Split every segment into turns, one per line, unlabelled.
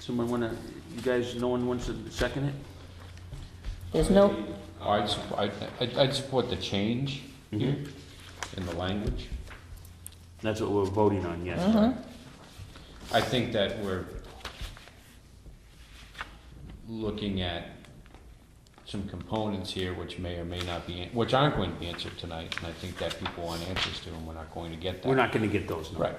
Someone wanna, you guys, no one wants to second it?
There's no,
I'd, sup- I'd, I'd- I'd support the change here
Mm-hmm.
in the language.
That's what we're voting on, yes.
Mm-hmm.
I think that we're looking at some components here which may or may not be, an- which aren't going to be answered tonight, and I think that people want answers to, and we're not going to get that.
We're not gonna get those, no.
Right.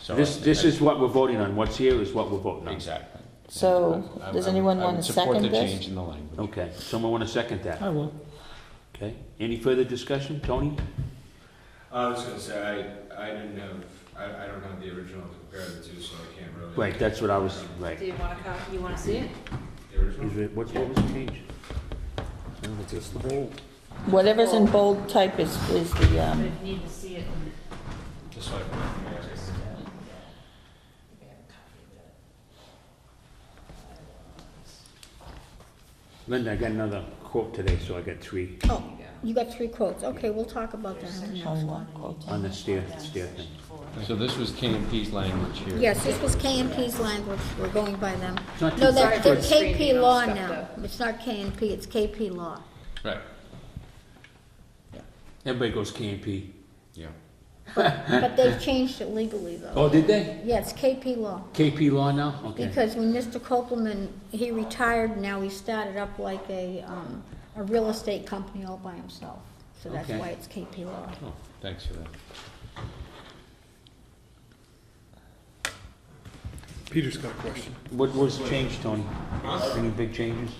So I
This,
think
this
I-
is what we're voting on, what's here is what we're voting on.
Exactly.
So,
I- I-
does
I would-
anyone
I would
wanna
Support
second
the
this?
change in the language.
Okay, someone wanna second that?
I will.
Okay, any further discussion, Tony?
I was gonna say, I, I didn't have, I, I don't have the original to compare the two, so I can't really.
Right, that's what I was, right.
Do you want to come, you want to see it?
The original?
Is it- What, what was the change?
whatever's in bold type is, is the,
But
um,
if you need to see it.
Just like.
Linda, I got another quote today, so I got three
Oh, you got three quotes. Okay, we'll talk about that on the next one.
homework quotes.
on the stair, stair thing.
So this was KMP's language here.
Yes, this was KMP's language. We're going by them.
It's not
No,
too
that's
Sorry for
that's KP
screening
law
all stuff,
now. It's not KMP, it's KP law.
Right,
Everybody goes KMP.
yeah.
But they've changed it legally, though.
Oh, did they?
Yeah, it's KP law.
KP law now? Okay.
Because when Mr. Copeland, he retired, now he started up like a, um, a real estate company all by himself. So that's
Okay.
why it's KP law.
Oh, thanks for that.
Peter's got a question.
What was changed, Tony? Any big changes?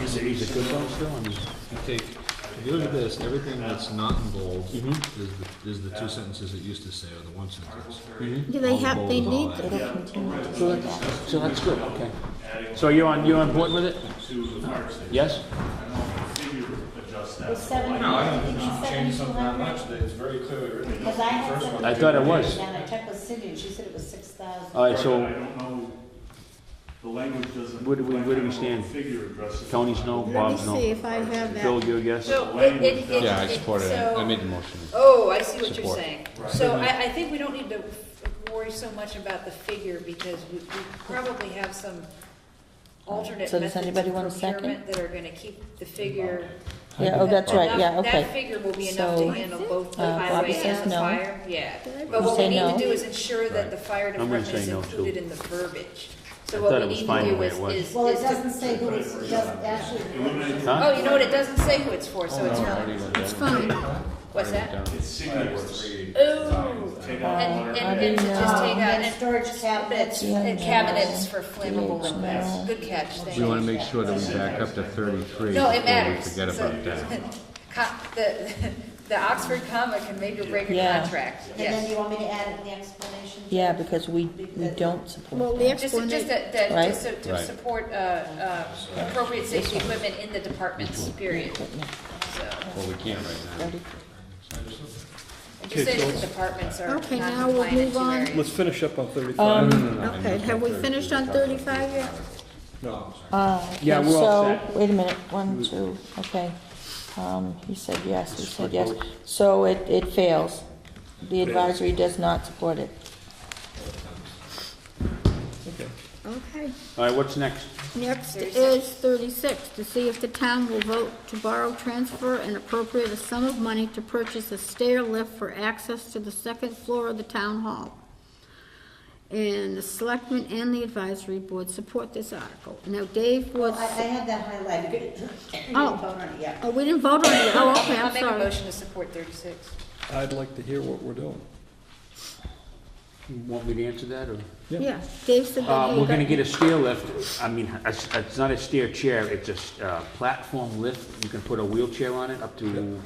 Is it, is it good though still? I mean,
Okay, if you look at this, everything that's not in bold is
Mm-hmm.
the, is the two sentences it used to say, or the one sentence.
Mm-hmm.
Do they have, they need,
It'll continue to
So
say that.
that's, so that's good, okay. So you're on, you're on board with it? Yes?
the seven,
No, I don't
I
think
think it's
she changed
seven
something
to
that
eleven.
much, it's very clearly written.
Because I had
First
seven.
one.
I thought it was.
And I checked with Cindy, and she said it was six thousand.
Uh,
All right,
I
so
don't know, the language doesn't.
Where do we- where do we
I don't know what
stand?
Figure addresses.
Tony's no,
Let me
Bob's
see
no.
if I have that.
Bill, you're a yes?
it- it- it-
Yeah, I supported it. I made the motion.
Oh, I see what you're
Support.
saying. So I, I think we don't need to worry so much about the figure because we, we probably have some alternate
So does
methods of
anybody want a second?
procurement that are gonna keep the figure.
Yeah, oh, that's right, yeah,
enough- That
okay.
figure will be enough to
So,
handle both the
uh, Bobby
highway
says
and the
no.
fire, yeah.
Did
But
You
what we
say
need
no?
to do is ensure that the fire
I'm gonna
department is
say no, too.
included in the verbiage. So
thought
what
it
we
was
need
fine
to
the
do
way
is,
it was.
is.
Well, it
is-
doesn't say who it's, it doesn't actually. um,
Huh?
Oh, you know what, it doesn't say who it's for, so it's
Oh, no, I
not,
already went
It's
down.
fine.
what's
Already
that?
down.
It's signatures.
Ooh.
Take
Uh,
out
And,
water.
and, and to just
Um,
take out,
and
and
storage cabinets.
Yeah,
and
no.
cabinets for flammable liquids,
no.
good catch, thank
We
you.
wanna make sure that we back up to thirty-three
No,
before
it
we
matters.
forget
So-
about that.
Co- The, the Oxford comma can make or break a
Yeah.
contract,
And
yes.
then you want me to add in the explanation?
Yeah, because we, we don't
Well,
support
the
that.
Just, just
explanation,
that, that,
Right.
just so- to
Right.
support, uh, uh, appropriate safety equipment in the departments, period, so.
Well, we can't right now.
Just
Okay,
say
so
the departments are not
Okay, now we'll
compliant in
move
two
on.
areas.
Let's finish up on thirty-five.
Um,
okay, have we finished on thirty-five yet?
uh,
Yeah,
okay,
we're all
so,
set.
wait a minute, one, two, okay. Um, he said yes, he said yes.
vote.
So it, it fails. The advisory does not support it.
Okay,
All right, what's next?
next is thirty-six, to see if the town will vote to borrow, transfer, and appropriate a sum of money to purchase a stair lift for access to the second floor of the town hall. And the selectmen and the advisory board support this article. Now, Dave was,
Well, I, I had that highlighted. You didn't vote on it yet.
oh, we didn't vote on it, oh, okay,
I'll
I'm
make a
sorry.
motion to support thirty-six.
I'd like to hear what we're doing.
You Want me to answer that or?
Yeah, Dave said that
Uh,
he
we're gonna
got-
get a stair lift, I mean, a s- it's not a stair chair, it's a s- uh, platform lift, you can put a wheelchair on it, up to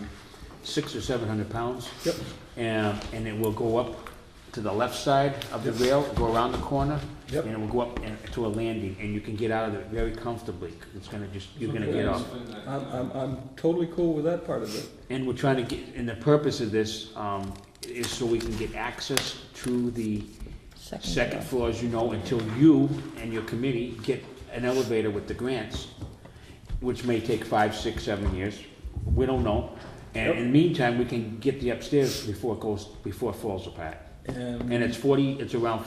six or seven hundred pounds.
Yep.
And, and it will go up to the left side of the rail, go around the corner.
Yep.
And it will go up and- to a landing, and you can get out of it very comfortably, it's gonna just, you're gonna get off.
I'm, I'm, I'm totally cool with that part of it.
And we're trying to get, and the purpose of this, um, is so we can get access to the second floor, as you know, until you and your committee get an elevator with the grants, which may take five, six, seven years, we don't know. And in the meantime, we can get the upstairs before it goes, before it falls apart.
And
And it's forty, it's around